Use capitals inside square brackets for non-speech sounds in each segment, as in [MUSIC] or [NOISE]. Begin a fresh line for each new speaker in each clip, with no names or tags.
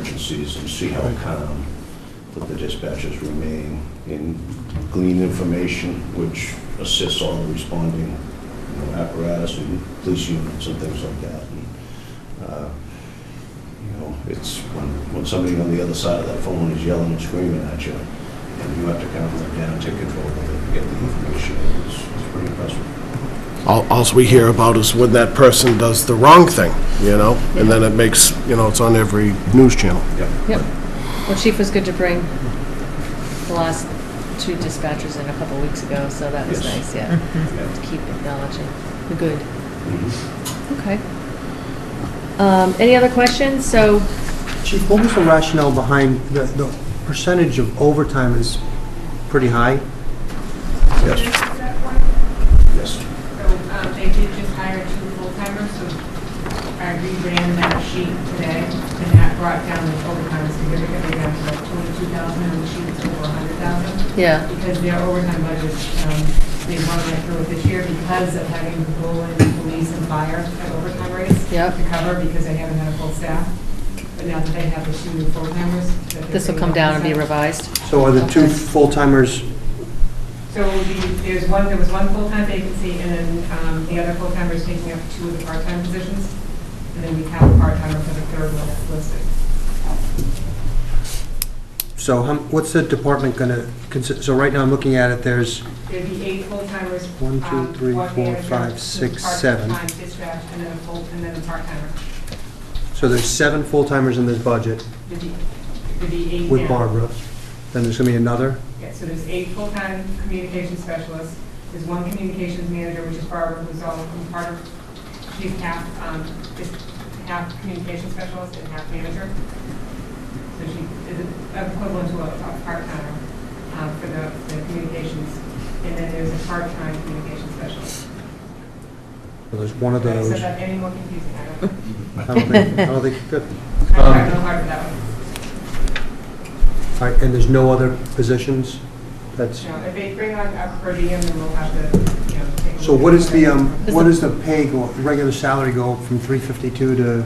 emergencies and see how calm that the dispatchers remain and glean information which assists all the responding you know, apparatus and police units and things like that. And, uh, You know, it's when, when somebody on the other side of that phone is yelling and screaming at you, and you have to calm them down, take control of it, and get the information, it's, it's pretty impressive.
All alls we hear about is when that person does the wrong thing, you know? And then it makes, you know, it's on every news channel.
Yep. Well, Chief was good to bring the last two dispatchers in a couple weeks ago, so that was
Yes. Mm-hmm.
nice, yeah.
Yeah.
To keep acknowledging the good. Okay. Um, Any other questions? So,
Chief, what was the rationale behind the, the percentage of overtime is pretty high?
Yes.
Is that one?
Yes.
So um, they did just hire two full-timers, so I reran that sheet today, and that brought down the overtime significantly down to like 22,000, and the sheet's over 100,000,
yeah,
because their overtime budget, um, they want to go this year because of having to pull in police and fire at overtime rates
Yep.
to cover, because they haven't had a full staff. But now that they have the two new full-timers. that they're
this will
bringing
come
up
down and be
percent.
revised.
So are the two
Okay.
full-timers,
So it would be, there's one, there was one full-time vacancy, and then um, the other full-timer is taking up two of the part-time positions, and then we have a part-timer for the third one that's listed.
so how- what's the department gonna, consi- so right now I'm looking at it, there's,
There'd be eight full-timers.
One, two,
um,
three,
one
four,
manager,
five,
two
six, seven.
Part-time dispatch, and then a full, and then a part-timer.
so there's seven full-timers in this budget
There'd be- there'd be eight
with
now.
Barbara. Then there's gonna be another,
Yeah, so there's eight full-time communication specialists, there's one communications manager, which is Barbara, who's all, who's part of, she's half, um, is half communication specialist and half manager. So she is equivalent to a, a part-timer, um, for the, the communications. And then there's a part-time communication specialist.
so there's one of
Okay, So
those. I
that any more confusing, I
Um,
don't,
don't think, I don't think, good.
I'm trying real hard for that one.
All right, and there's no other positions? That's,
You know, if they bring on a per diem, then we'll have to, you know. take a look
so
at
what is the, um,
that.
what is the pay go, the regular salary go up from 352 to,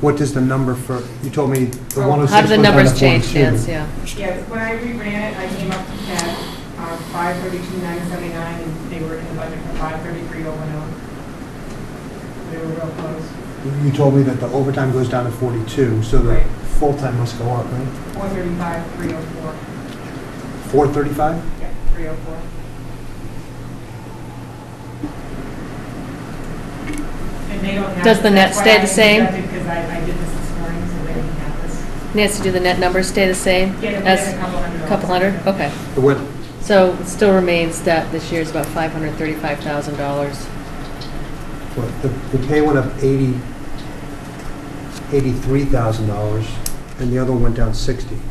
what does the number for, you told me the
How do
106
How do the
went down
numbers
to
change,
102.
Nancy? Yeah.
Yeah, when I reran it, I came up to that, um, five thirty-two, nine seventy-nine, and they were in the budget for five thirty-three, oh one oh. They were real close.
You told me that the overtime goes down to 42, so the
Right.
full-time must go up, right?
Four thirty-five, three oh four,
435?
yeah, three oh four. And they don't have.
Does the net
that's why
stay the
I
same?
deducted, Because I, I did this this morning, so they didn't have this.
Nancy, do the net numbers stay the same?
Yeah, we
as
had a couple hundred dollars.
Couple hundred? Oh. Okay.
The what?
So it still remains that this year's about $535,000.
what- The the pay went up 80, $83,000, and the other one went down 60.
So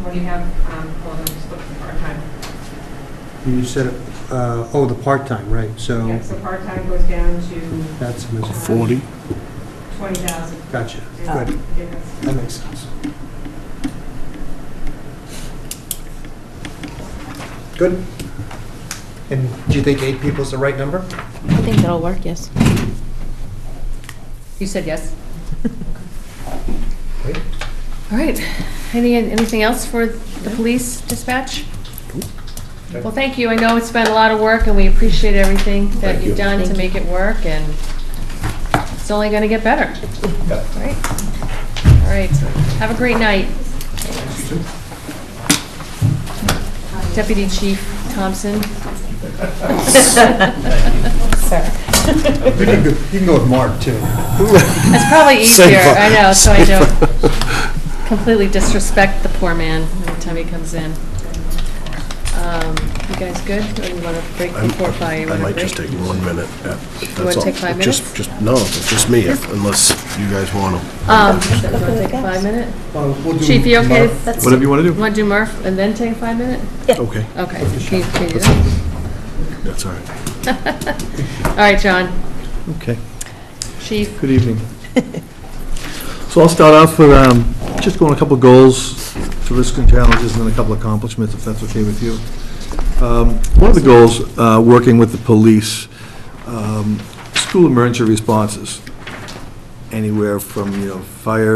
when you have, um, well, I'm just looking for a time.
You said, uh, oh, the part-time, right, so
Yeah, so part-time goes down to
that's a mis-
40?
twenty thousand.
Gotcha,
Uh,
good, that makes sense. Good. And do you think eight people's the right number?
I think that'll work, yes.
You said yes?
Great.
All right. Any, anything else for the police dispatch? Well, thank you. I know it's been a lot of work, and we appreciate everything that you've done to make it work, and it's only going to get better. Right? All right. Have a great night. Deputy Chief Thompson.
You can go- you can go with Mark, too.
That's probably easier,
Safer.
I know, so I don't completely disrespect the poor man every time he comes in. Um, You guys good? Or you want to break
I'm-
before five? You
I
wanna
might just
break?
take one minute. yeah, that's
wanna
all.
take five
Just-
minutes?
Just, no, it's just me, if- unless you guys want to.
Um, you want to take a five minute?
Well, we'll do
Chief, you okay?
Mark.
Whatever you want to do.
Want to do Murph and then take a five minute?
Okay,
Okay. Can you- can you do that?
that's all right.
All right, John.
Okay,
Chief,
good evening. [LAUGHS] So I'll start off with um, just going a couple of goals, to risks and challenges, and then a couple of accomplishments, if that's okay with you. Um, One of the goals, uh, working with the police, um, school emergency responses. anywhere from, you know, fire